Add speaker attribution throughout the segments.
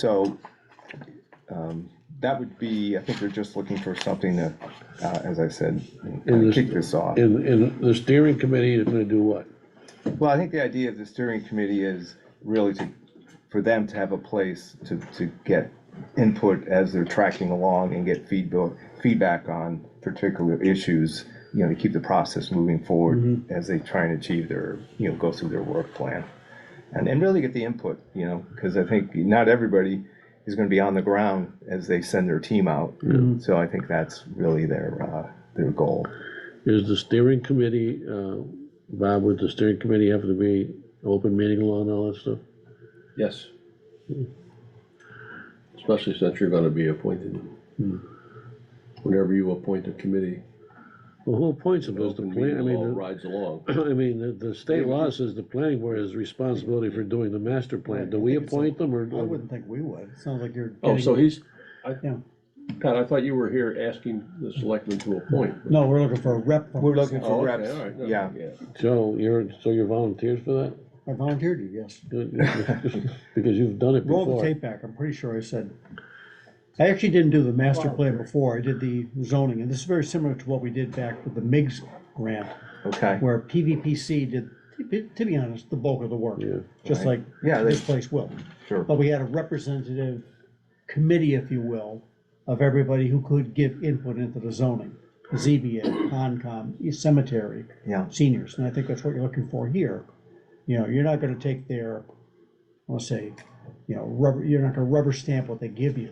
Speaker 1: So, um, that would be, I think they're just looking for something to, uh, as I said, uh,
Speaker 2: And
Speaker 1: kick
Speaker 2: this-
Speaker 1: this off.
Speaker 2: And, and the steering committee is gonna do what?
Speaker 1: Well, I think the idea of the steering committee is really to, for them to have a place to, to get input as they're tracking along and get feedback, feedback on particular issues, you know, to keep the process moving forward as they try and achieve their, you know, go through their work plan. And, and really get the input, you know, because I think not everybody is gonna be on the ground as they send their team out. So I think that's really their, uh, their goal.
Speaker 2: Is the steering committee, uh, Bob, would the steering committee have to be open meeting law and all that stuff?
Speaker 3: Yes. Especially since you're gonna be appointed. Whenever you appoint a committee,
Speaker 2: Well, who appoints them? Does the
Speaker 3: open
Speaker 2: plan, I
Speaker 3: meeting law
Speaker 2: mean,
Speaker 3: rides along.
Speaker 2: the- I mean, the, the state law says the planning board has responsibility for doing the master plan. Do we appoint them or?
Speaker 4: I wouldn't think we would. It Sounds like you're.
Speaker 3: Oh, so
Speaker 4: getting-
Speaker 3: he's, I,
Speaker 4: Yeah.
Speaker 3: Pat, I thought you were here asking the selectmen to appoint. but-
Speaker 4: No, we're looking for a rep. from-
Speaker 1: We're looking
Speaker 3: Oh,
Speaker 1: for
Speaker 3: okay,
Speaker 1: reps,
Speaker 3: all right, no,
Speaker 1: yeah.
Speaker 2: So you're, so you're volunteers for that?
Speaker 4: I volunteered you, yes.
Speaker 2: Good. Because you've done it
Speaker 4: Roll the
Speaker 2: before.
Speaker 4: tape back. I'm pretty sure I said. I actually didn't do the master plan before. I did the zoning, and this is very similar to what we did back with the MIGS grant,
Speaker 1: okay?
Speaker 4: where PVPC did, to be- to be honest, the bulk of the work.
Speaker 2: Yeah.
Speaker 4: Just
Speaker 1: Right.
Speaker 4: like
Speaker 1: Yeah, they-
Speaker 4: this place will.
Speaker 1: Sure.
Speaker 4: But we had a representative committee, if you will, of everybody who could give input into the zoning. ZBA, Concom, Cemetery,
Speaker 1: Yeah,
Speaker 4: seniors, and I think that's what you're looking for here. You know, you're not gonna take their, I'll say, you know, rubber, you're not gonna rubber stamp what they give you.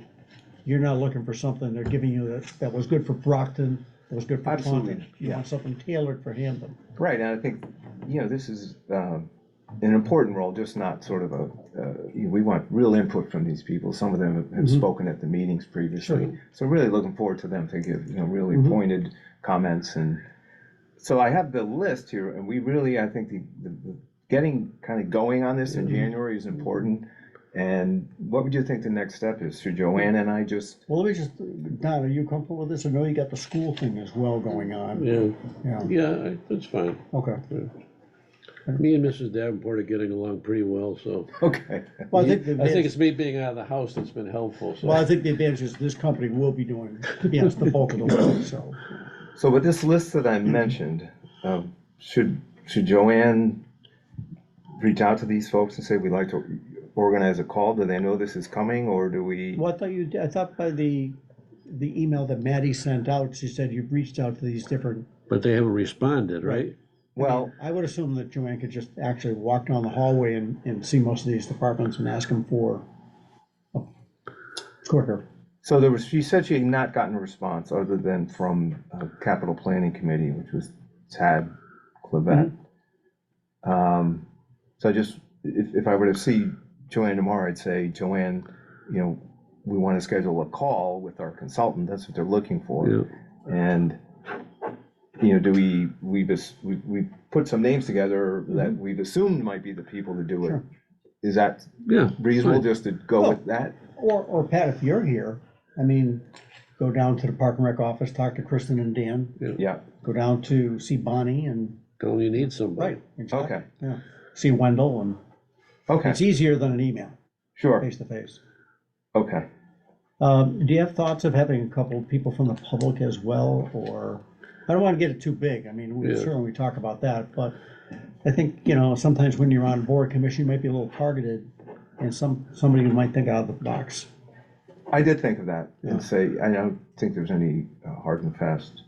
Speaker 4: You're not looking for something they're giving you that, that was good for Brockton, that was good for
Speaker 1: Absolutely,
Speaker 4: Taunton. You
Speaker 1: yeah.
Speaker 4: want something tailored for Hampton.
Speaker 1: right, and I think, you know, this is um, an important role, just not sort of a, uh, you- we want real input from these people. Some of them have spoken at the meetings previously. So really looking forward to them to give, you know, really pointed comments and, so I have the list here, and we really, I think the, the, the- getting kind of going on this in January is important. And what would you think the next step is? Should Joanne and I just,
Speaker 4: Well, let me just, Don, are you comfortable with this? I know you got the school thing as well going on.
Speaker 2: Yeah,
Speaker 4: Yeah,
Speaker 2: yeah, I- that's fine.
Speaker 4: okay.
Speaker 2: Me and Mrs. Davenport are getting along pretty well, so.
Speaker 1: okay,
Speaker 4: Well, I think, the
Speaker 2: I think
Speaker 4: advantage-
Speaker 2: it's me being out of the house that's been helpful, so.
Speaker 4: well, I think the advantage is this company will be doing, to be honest, the bulk of the work, so.
Speaker 1: So with this list that I mentioned, um, should, should Joanne reach out to these folks and say, we'd like to organize a call? Do they know this is coming or do we?
Speaker 4: Well, I thought you, did- I thought by the, the email that Maddie sent out, she said you've reached out to these different,
Speaker 2: But they haven't responded, right?
Speaker 1: Well,
Speaker 4: I would assume that Joanne could just actually walk down the hallway and, and see most of these departments and ask them for quicker.
Speaker 1: so there was, she said she had not gotten a response other than from uh, Capital Planning Committee, which was Tad Clevet. Um, So I just, if, if I were to see Joanne tomorrow, I'd say, Joanne, you know, we want to schedule a call with our consultant. That's what they're looking for.
Speaker 2: Yeah.
Speaker 1: And, you know, do we, we just, we, we put some names together that we've assumed might be the people to do it.
Speaker 4: Mm-hmm. Sure. Oh.
Speaker 1: Is that
Speaker 2: Yeah.
Speaker 1: reasonable
Speaker 2: fine.
Speaker 1: just to go with that?
Speaker 4: Or, or Pat, if you're here, I mean, go down to the Park and Rec office, talk to Kristen and Dan,
Speaker 1: Yeah,
Speaker 4: go down to see Bonnie and,
Speaker 2: Tell them you need somebody.
Speaker 4: right, exactly,
Speaker 1: okay,
Speaker 4: yeah. See Wendell and,
Speaker 1: okay,
Speaker 4: it's easier than an email,
Speaker 1: sure,
Speaker 4: face to face.
Speaker 1: okay.
Speaker 4: Um, do you have thoughts of having a couple of people from the public as well, or, I don't wanna get it too big, I mean, we
Speaker 2: Yeah.
Speaker 4: certainly we talk about that, but I think, you know, sometimes when you're on board commission, you might be a little targeted, and some, somebody who might think out of the box.
Speaker 1: I did think of that
Speaker 4: Yeah.
Speaker 1: and say, I don't think there's any uh, hard and fast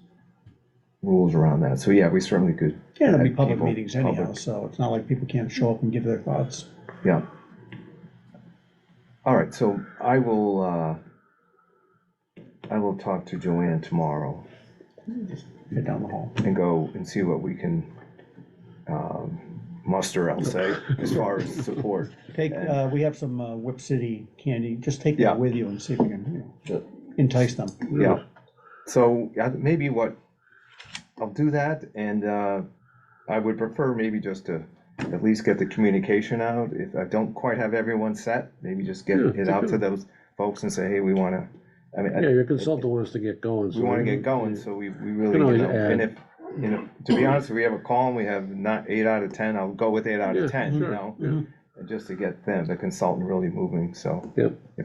Speaker 1: rules around that. So yeah, we certainly could.
Speaker 4: Yeah, it'll be
Speaker 1: add
Speaker 4: public
Speaker 1: people-
Speaker 4: meetings anyhow,
Speaker 1: public,
Speaker 4: so it's not like people can't show up and give their thoughts.
Speaker 1: Yeah. All right, so I will, uh, I will talk to Joanne tomorrow.
Speaker 4: Get down the hall.
Speaker 1: and go and see what we can um, muster, I'll say, as far as support.
Speaker 4: Take, uh, we have some, uh, Whip City candy, just take
Speaker 1: Yeah.
Speaker 4: that with you and see if you can, you
Speaker 3: Yeah.
Speaker 4: know, entice them.
Speaker 1: Yeah. So yeah, maybe what, I'll do that, and uh, I would prefer maybe just to at least get the communication out. If I don't quite have everyone set, maybe just get it out to those folks and say, hey, we want to, I mean, I-
Speaker 2: Yeah, your consultant wants to get going.
Speaker 1: we
Speaker 2: so
Speaker 1: want to get going, so we, we really,
Speaker 2: Can
Speaker 1: you
Speaker 2: always
Speaker 1: know, and
Speaker 2: add.
Speaker 1: if, you know, to be honest, if we have a call and we have not eight out of ten, I'll go with eight out
Speaker 2: Yeah,
Speaker 1: of ten, you
Speaker 2: sure,
Speaker 1: know?
Speaker 2: yeah.
Speaker 1: Just to get them, the consultant really moving, so.
Speaker 2: Yep.